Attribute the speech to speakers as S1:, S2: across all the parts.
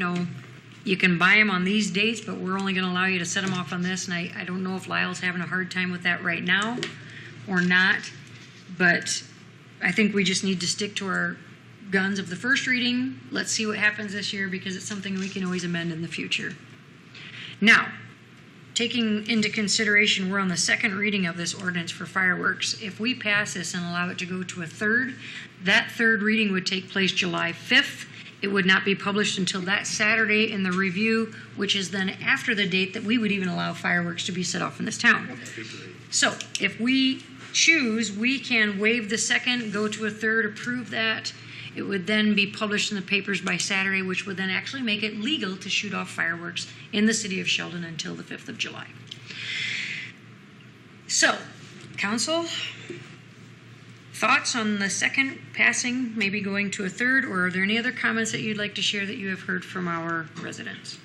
S1: know, you can buy them on these dates, but we're only going to allow you to set them off on this. And I, I don't know if Lyle's having a hard time with that right now or not. But I think we just need to stick to our guns of the first reading. Let's see what happens this year because it's something we can always amend in the future. Now, taking into consideration, we're on the second reading of this ordinance for fireworks. If we pass this and allow it to go to a third, that third reading would take place July 5th. It would not be published until that Saturday in the review, which is then after the date that we would even allow fireworks to be set off in this town. So if we choose, we can waive the second, go to a third, approve that. It would then be published in the papers by Saturday, which would then actually make it legal to shoot off fireworks in the city of Sheldon until the 5th of July. So, council, thoughts on the second passing, maybe going to a third, or are there any other comments that you'd like to share that you have heard from our residents?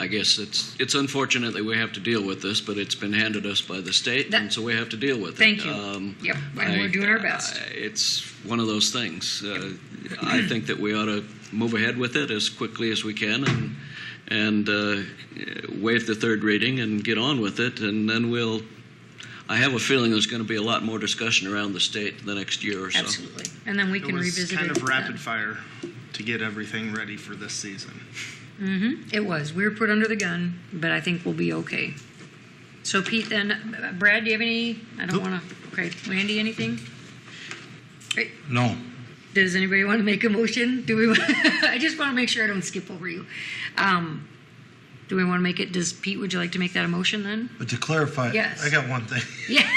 S2: I guess it's it's unfortunate that we have to deal with this, but it's been handed us by the state,
S1: That-
S2: and so we have to deal with it.
S1: Thank you.
S2: Um,
S1: Yep, and we're
S2: I-
S1: doing our best.
S2: I- It's one of those things. Uh, I think that we ought to move ahead with it as quickly as we can and and uh, waive the third reading and get on with it, and then we'll. I have a feeling there's going to be a lot more discussion around the state the next year or so.
S1: Absolutely. And then we
S3: It
S1: can
S3: was
S1: revisit it.
S3: kind of
S1: then.
S3: rapid fire to get everything ready for this season.
S1: It was. We were put under the gun, but I think we'll be okay. So Pete, then, Brad, do you have any, I don't
S3: Nope.
S1: want to, okay, Randy, anything? Right.
S3: No.
S1: Does anybody want to make a motion? Do we, I just want to make sure I don't skip over you. Um, Do we want to make it, does Pete, would you like to make that a motion then?
S4: But to clarify,
S1: Yes.
S4: I got one thing.
S1: Yeah,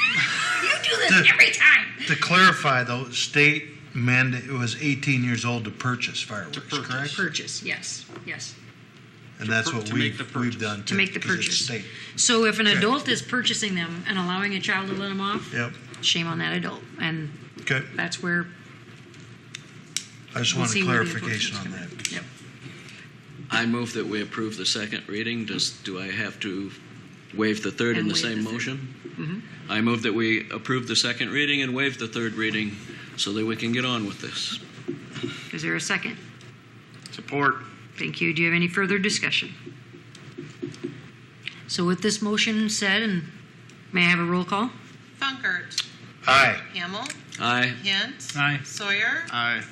S1: you do this every time.
S4: To clarify, though, state mandate, it was 18 years old to purchase fireworks,
S3: purchase.
S4: correct?
S1: Purchase, yes, yes.
S4: And that's what
S3: to make
S4: we've,
S3: the
S4: we've
S3: purchase.
S4: done.
S1: To make the
S4: 'cause it's
S1: purchase.
S4: state.
S1: So if an
S4: Okay.
S1: adult is purchasing them and allowing a child to let them off,
S4: Yep,
S1: shame on that adult. And
S4: okay.
S1: that's where
S4: I just
S1: we'll
S4: wanted
S1: see where the
S4: clarification on
S1: enforcement's
S4: that.
S1: coming. Yep.
S2: I move that we approve the second reading. Does, do I have to waive the third in
S1: And
S2: the
S1: waive
S2: same
S1: the third. Mm-hmm.
S2: motion? I move that we approve the second reading and waive the third reading so that we can get on with this.
S1: Is there a second?
S3: Support.
S1: Thank you. Do you have any further discussion? So with this motion said, and may I have a roll call?
S5: Funkert.
S4: Aye.
S5: Hamel.
S2: Aye.
S5: Hint.
S6: Aye.
S5: Sawyer.
S3: Aye.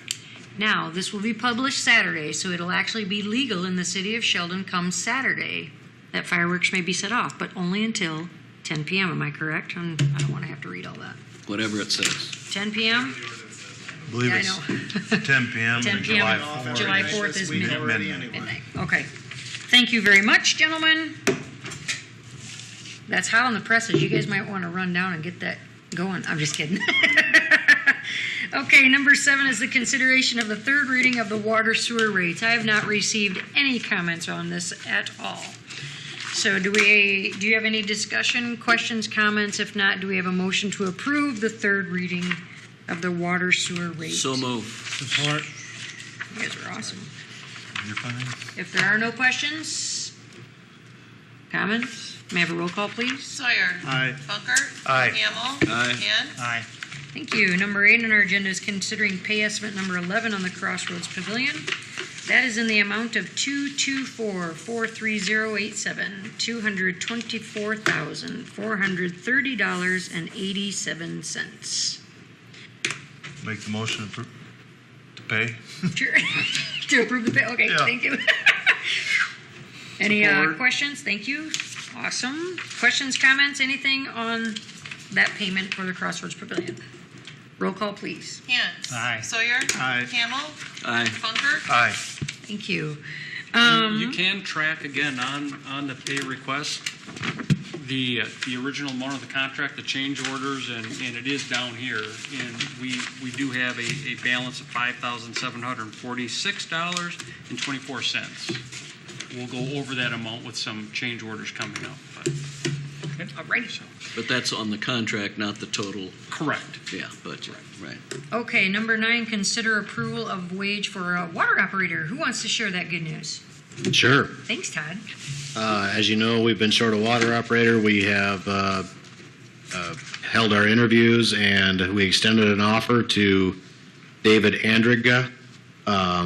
S1: Now, this will be published Saturday, so it'll actually be legal in the city of Sheldon come Saturday that fireworks may be set off, but only until 10 p.m. Am I correct? And I don't want to have to read all that.
S2: Whatever it says.
S1: 10 p.m.
S4: I believe
S1: Yeah, I
S4: it's
S1: know.
S4: 10 PM
S1: 10 p.m.
S4: on July
S1: on
S4: 4th.
S1: July 4th is
S3: This week
S1: midnight.
S3: already anyway.
S1: Midnight. Okay. Thank you very much, gentlemen. That's hot on the presses. You guys might want to run down and get that going. I'm just kidding. okay, number seven is the consideration of the third reading of the water sewer rates. I have not received any comments on this at all. So do we, do you have any discussion, questions, comments? If not, do we have a motion to approve the third reading of the water sewer rates?
S2: So move.
S1: You guys are awesome.
S4: You're fine.
S1: If there are no questions, comments, may I have a roll call, please?
S5: Sawyer.
S3: Aye.
S5: Funkert.
S4: Aye.
S5: Hamel.
S2: Aye.
S5: Hint.
S3: Aye.
S1: Thank you. Number eight on our agenda is considering pay estimate number 11 on the Crossroads Pavilion. That is in the amount of 224,43087, $224,430.87.
S4: Make the motion to appro- to pay.
S1: Sure. to approve the pay. Okay,
S4: Yeah.
S1: thank you. Any uh,
S3: Support.
S1: questions? Thank you. Awesome. Questions, comments, anything on that payment for the Crossroads Pavilion? Roll call, please.
S5: Hint.
S6: Aye.
S5: Sawyer.
S3: Aye.
S5: Hamel.
S2: Aye.
S5: Funkert.
S4: Aye.
S1: Thank you. Um,
S7: You can track again on, on the pay request, the, uh, the original amount of the contract, the change orders, and, and it is down here. And we, we do have a, a balance of five thousand seven hundred and forty-six dollars and twenty-four cents. We'll go over that amount with some change orders coming up. but-
S1: All right.
S2: But that's on the contract, not the total,
S7: Correct.
S2: yeah, budget. Right.
S1: Okay, number nine, consider approval of wage for a water operator. Who wants to share that good news?
S8: Sure.
S1: Thanks, Todd.
S8: Uh, As you know, we've been short a water operator. We have uh, uh, held our interviews, and we extended an offer to David Andriga uh,